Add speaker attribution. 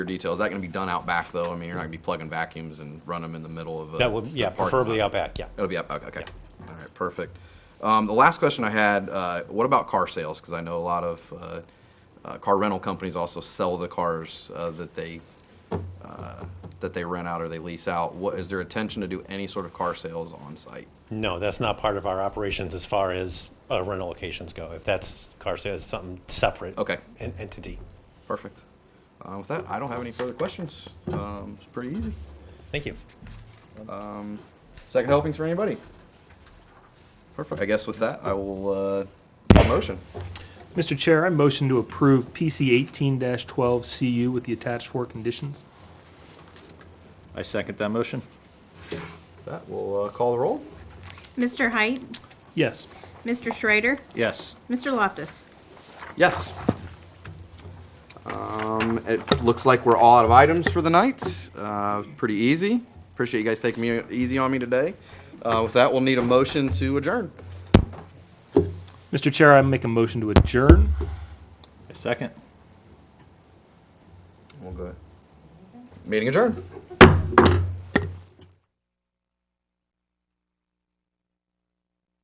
Speaker 1: detail. Is that going to be done out back though? I mean, you're not going to be plugging vacuums and run them in the middle of a.
Speaker 2: That would, yeah,
Speaker 1: a parking
Speaker 2: preferably
Speaker 1: lot.
Speaker 2: out back, yeah.
Speaker 1: It'll be out back. Okay. All right. Perfect. Um, the last question I had: uh, What about car sales? Because I know a lot of uh, uh, car rental companies also sell the cars uh, that they uh, that they rent out or they lease out. What is their intention to do any sort of car sales on site?
Speaker 2: No, that's not part of our operations as far as uh, rental locations go. If that's car sales, something separate.
Speaker 1: Okay.
Speaker 2: en- Entity.
Speaker 1: Perfect. Uh, with that, I don't have any further questions. Um, it's pretty easy.
Speaker 2: Thank you.
Speaker 1: Second helpings for anybody? Perfect. I guess with that, I will, uh, need a motion.
Speaker 3: Mr. Chair, I motion to approve PC eighteen twelve CU with the attached four conditions.
Speaker 4: I second that motion.
Speaker 1: With That, we'll, uh, call the roll.
Speaker 5: Mr. Height,
Speaker 3: Yes.
Speaker 5: Mr. Schrader,
Speaker 4: Yes.
Speaker 5: Mr. Loftus.
Speaker 1: Yes. Um, it looks like we're all out of items for the night. Uh, pretty easy. Appreciate you guys taking me, easy on me today. Uh, with that, we'll need a motion to adjourn.
Speaker 3: Mr. Chair, I make a motion to adjourn.
Speaker 4: I second.
Speaker 1: We'll go. Meeting adjourned.